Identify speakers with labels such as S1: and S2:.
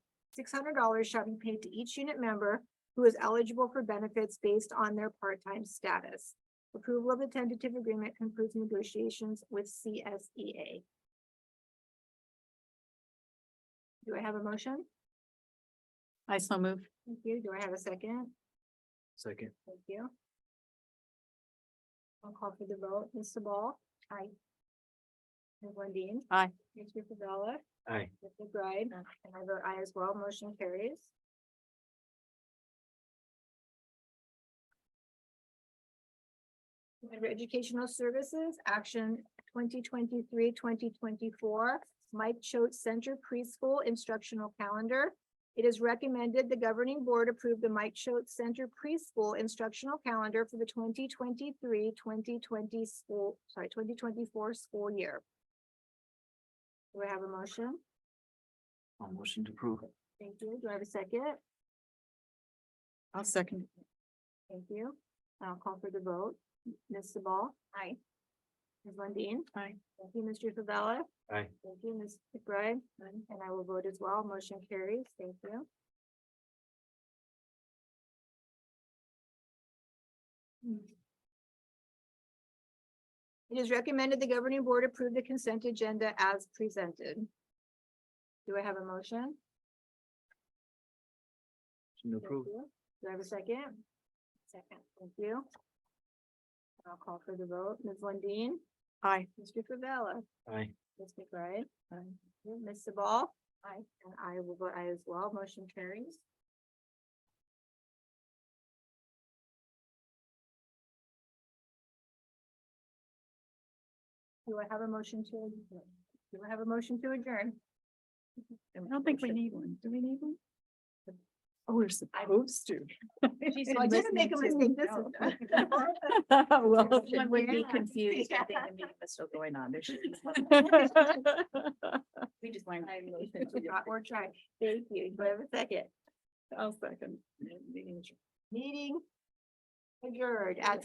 S1: six hundred dollars shall be paid to each unit member who is eligible for benefits based on their part-time status. Approval of the tentative agreement concludes negotiations with E CSEA. Do I have a motion?
S2: I so move.
S1: Thank you. Do I have a second?
S3: Second.
S1: Thank you. I'll call for the vote. Mr. Ball? Aye. Ms. Lundeen?
S2: Aye.
S1: Mr. Favela?
S3: Aye.
S1: Ms. McBride?
S2: Aye.
S1: And Uh, I vote aye as well. Motion carries. Under Educational Services, action 2023-2024, Mike Choate Center Preschool Instructional Calendar. It is recommended the governing board approve the Mike Choate Center Preschool Instructional Calendar for the 2023-2020 school, sorry, twenty twenty-four school year. Do I have a motion?
S3: I'll motion to approve.
S1: Thank you. Do I have a second?
S2: I'll second.
S1: Thank you. I'll call for the vote. Ms. Ball? Aye. Ms. Lundeen?
S2: Aye.
S1: Thank you, Mr. Favela.
S3: Aye.
S1: Thank you, Ms. McBride. And I will vote as well. Motion carries. Thank you. It is recommended the governing board approve the consent agenda as presented. Do I have a motion?
S3: Motion to
S1: Thank
S3: approve.
S1: you. Do I have a second? Second. Thank you. I'll call for the vote. Ms. Lundeen?
S2: Aye.
S1: Mr. Favela?
S3: Aye.
S1: Ms. McBride? Ms. Sabal? Aye. And I will vote aye as well. Motion carries. Do I have a motion to, adjourn? do I have a motion to adjourn?
S2: I don't think we need one. Do we need one? Oh, we're supposed to.
S1: So I didn't make a mistake this time.
S2: Well,
S1: One would be confused. I think the
S4: meeting was still going on. There should be. We just learned.
S1: Or try. Thank you. Do I have a second?
S2: I'll second.
S1: Meeting adjourned at